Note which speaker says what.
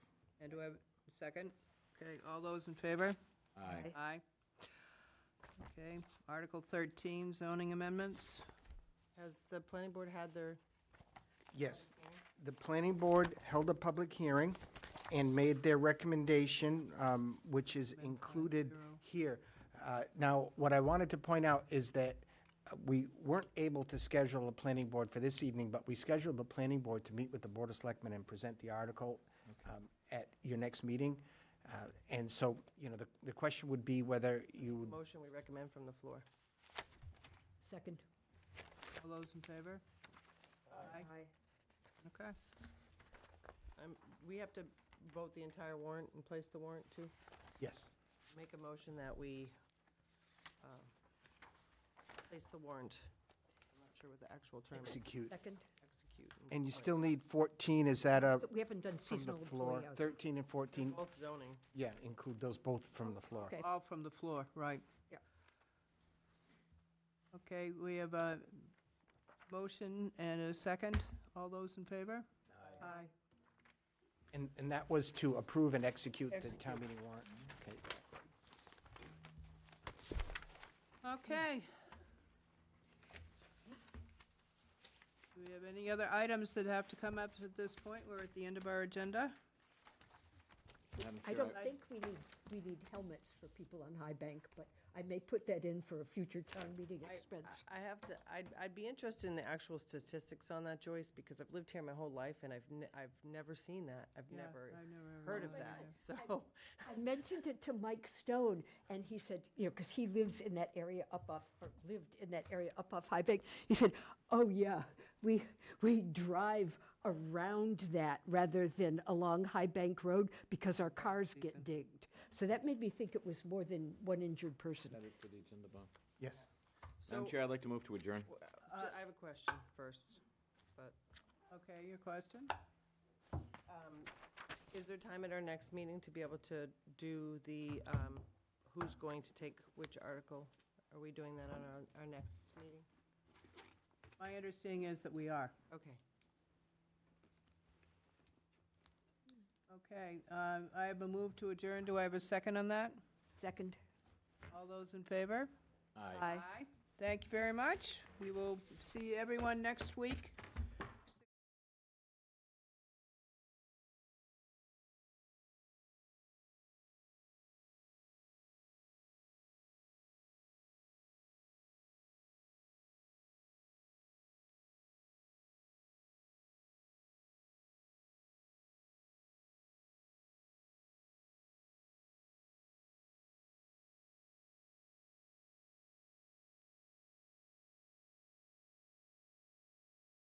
Speaker 1: do I have a second? Okay, all those in favor?
Speaker 2: Aye.
Speaker 1: Aye. Okay, Article 13, zoning amendments.
Speaker 3: Has the planning board had their,
Speaker 4: Yes, the planning board held a public hearing and made their recommendation, um, which is included here. Uh, Now, what I wanted to point out is that uh, we weren't able to schedule a planning board for this evening, but we scheduled the planning board to meet with the Board of Selectmen and present the article um, at your next meeting. Uh, And so, you know, the, the question would be whether you would
Speaker 3: motion we recommend from the floor?
Speaker 5: Second.
Speaker 1: All those in favor? Aye. Okay.
Speaker 3: Um, We have to vote the entire warrant and place the warrant too?
Speaker 4: Yes.
Speaker 3: Make a motion that we um, place the warrant. I'm not sure what the actual term is.
Speaker 4: execute.
Speaker 5: Second.
Speaker 3: Execute.
Speaker 4: And you still need 14, is that a,
Speaker 5: We haven't done
Speaker 4: from the
Speaker 5: seasonal
Speaker 4: floor?
Speaker 5: employee hours.
Speaker 4: 13 and 14,
Speaker 3: Both zoning.
Speaker 4: Yeah, include those both from the floor.
Speaker 5: Okay.
Speaker 1: All from the floor, right.
Speaker 5: Yeah.
Speaker 1: Okay, we have a motion and a second. All those in favor? Aye.
Speaker 4: And, and that was to approve and execute the
Speaker 1: Execute.
Speaker 4: town meeting warrant. Okay.
Speaker 1: Okay. Do we have any other items that have to come up at this point? We're at the end of our agenda.
Speaker 2: Madam
Speaker 5: I
Speaker 2: Chair,
Speaker 5: don't think we need, we need helmets for people on High Bank, but I may put that in for a future town meeting
Speaker 3: I-
Speaker 5: expense.
Speaker 3: I I have to, I'd, I'd be interested in the actual statistics on that, Joyce, because I've lived here my whole life and I've, ne- I've never seen that. I've
Speaker 1: Yeah,
Speaker 3: never
Speaker 1: I've never
Speaker 3: heard of
Speaker 1: really
Speaker 3: that,
Speaker 1: either.
Speaker 3: so.
Speaker 5: I mentioned it to Mike Stone, and he said, you know, because he lives in that area up off, or lived in that area up off High Bank. He said, oh, yeah, we, we drive around that rather than along High Bank Road because our cars get dinged. So that made me think it was more than one injured person.
Speaker 2: add it to the agenda, Bob.
Speaker 4: Yes.
Speaker 2: Madam
Speaker 3: So,
Speaker 2: Chair, I'd like to move to adjourn.
Speaker 3: w- uh, ju- I have a question first, but,
Speaker 1: Okay, your question?
Speaker 3: um, is there time at our next meeting to be able to do the, um, who's going to take which article? Are we doing that on our, our next meeting?
Speaker 1: My understanding is that we are.
Speaker 3: Okay.
Speaker 1: Okay, uh, I have a move to adjourn. Do I have a second on that?
Speaker 5: Second.
Speaker 1: All those in favor?
Speaker 2: Aye.
Speaker 1: Thank you very much. We will see everyone next week.